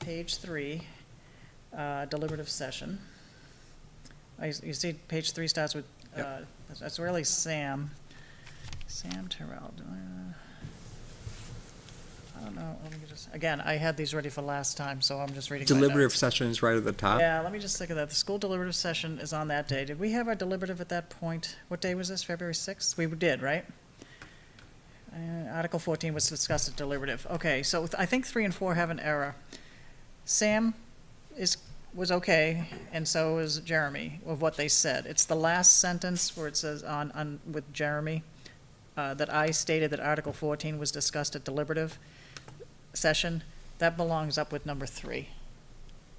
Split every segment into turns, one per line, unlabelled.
page three, uh, deliberative session. I- You see, page three starts with,
Yep.
uh, that's- that's really Sam, Sam Terrell. uh, I don't know, let me just, again, I had these ready for last time, so I'm just reading my notes.
Deliberative sessions right at the top.
Yeah, let me just think of that. The school deliberative session is on that day. Did we have our deliberative at that point? What day was this, February 6th? We did, right? Uh, Article 14 was discussed at deliberative. Okay, so th- I think three and four have an error. Sam is, was okay, and so is Jeremy, of what they said. It's the last sentence where it says on, on, with Jeremy, uh, that I stated that Article 14 was discussed at deliberative session. That belongs up with number three.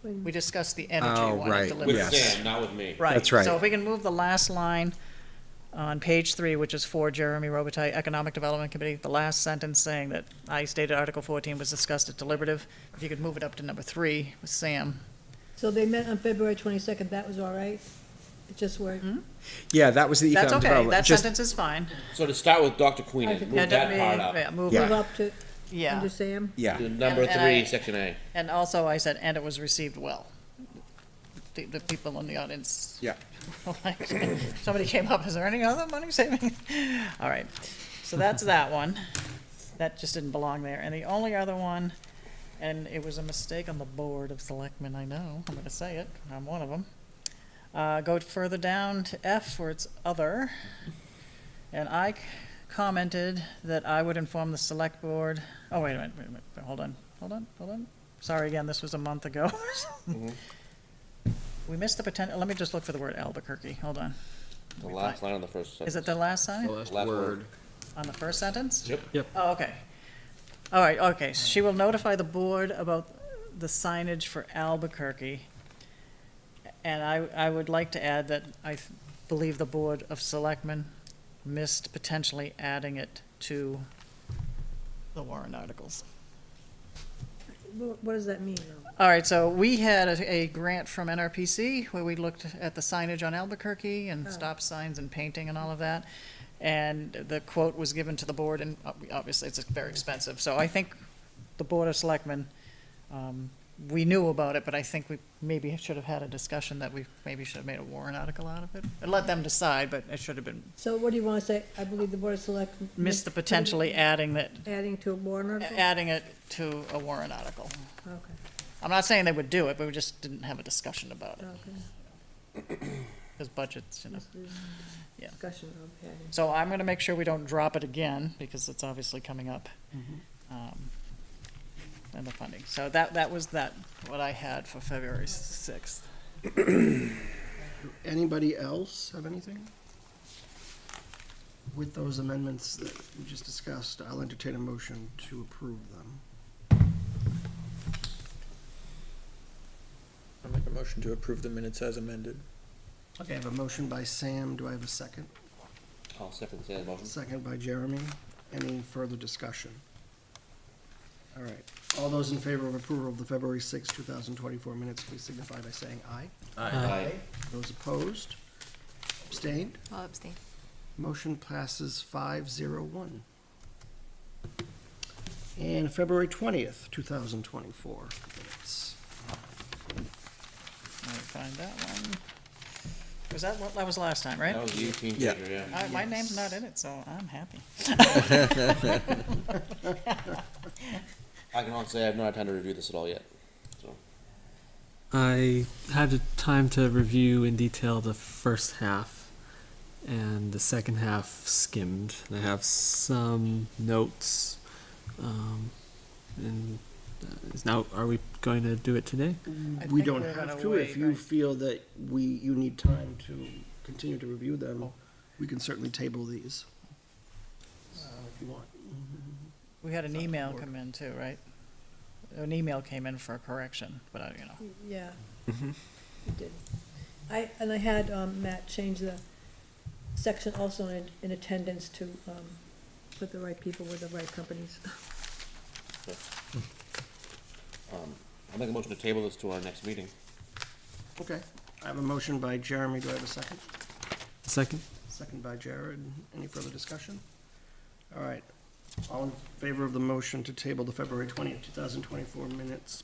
We discussed the energy
Oh,
one
right,
at
yeah.
deliberative.
With
Yes.
Sam, not with me.
Right.
That's right.
So if we can move the last line on page three, which is for Jeremy Robitaille, Economic Development Committee, the last sentence saying that I stated Article fourteen was discussed at deliberative, if you could move it up to number three with Sam.
So they met on February twenty-second, that was all right? It just worked.
Mm-hmm.
Yeah, that was the
That's
economic
okay, that
development. Just,
sentence is fine.
So to start with Dr. Queen,
Okay.
and
Yeah,
move that part
yeah,
up.
Move
Move
it,
up to,
yeah.
under Sam?
yeah,
To Number
And- and
three,
I-
section A.
And also I said, and it was received well. The, the people in the audience
yeah.
Somebody came up, is there any other money saving? All right, so that's that one. That just didn't belong there. And the only other one, and it was a mistake on the board of selectmen, I know, I'm gonna say it, I'm one of them. Uh, go further down to F where it's other. And I c- commented that I would inform the select board, oh, wait a minute, wait a minute, hold on, hold on, hold on. Sorry again, this was a month ago.
Mm-hmm.
We missed the potential, let me just look for the word Albuquerque, hold on.
The last line on the first
Is
sentence.
it the last
The
sign?
last
Last
word.
On the first sentence?
Yep.
Yep.
Oh, okay. All right, okay. So She will notify the board about the signage for Albuquerque. And I, I would like to add that I th- believe the Board of Selectmen missed potentially adding it to the Warren articles.
Wh- What does that mean, though?
All right, so we had a, a grant from NRPC where we looked at the signage on Albuquerque and
Oh.
stop signs and painting and all of that. And the quote was given to the board and ob- obviously it's very expensive. So I think the Board of Selectmen, um, we knew about it, but I think we maybe should have had a discussion that we maybe should have made a warrant article out of it. And let them decide, but it should have been,
So what do you wanna say? I believe the Board of Select.
missed the potentially adding that,
Adding to a warrant article?
adding it to a warrant article.
Okay,
I'm not saying they would do it, but we just didn't have a discussion about it.
Oh. okay.
Because budgets, you know. Yeah.
Discussion of adding.
So I'm gonna make sure we don't drop it again, because it's obviously coming up. um, And the funding. So that, that was that, what I had for February sixth.
Anybody else have anything? With those amendments that we just discussed, I'll entertain a motion to approve them.
I'll make a motion to approve the minutes as amended.
Okay, I have a motion by Sam. Do I have a second?
I'll second Sam's motion.
Second by Jeremy. Any further discussion? All right. All those in favor of approval of the February sixth, two 2024 minutes, please signify by saying aye.
Aye.
Those opposed? Abstained?
I'll abstain.
Motion passes five zero one. And February twentieth, two thousand twenty-four minutes.
Let me find that one. Was that, what that was last time, right?
That was you, team
Yeah.
teacher, yeah.
All right, My name's not in it, so I'm happy.
I can honestly say I've not had time to review this at all yet.
I had the time to review in detail the first half, and the second half skimmed. And I have some notes. Um, and uh, is now, are we going to do it today?
I
We
think
don't
we're gonna
have to, if
wait,
you
right?
feel that we, you need time to continue to review them, we can certainly table these. uh, If you want.
We had an
Not
email
work.
come in too, right? An email came in for a correction, but I, you know,
Yeah. It did. I, and I had um, Matt change the section also in, in attendance to um, put the right people with the right companies.
I'll make a motion to table this to our next meeting.
Okay, I have a motion by Jeremy. Do I have a second?
Second?
Second by Jared. Any further discussion? All right. All in favor of the motion to table the February twentieth, two thousand twenty-four minutes,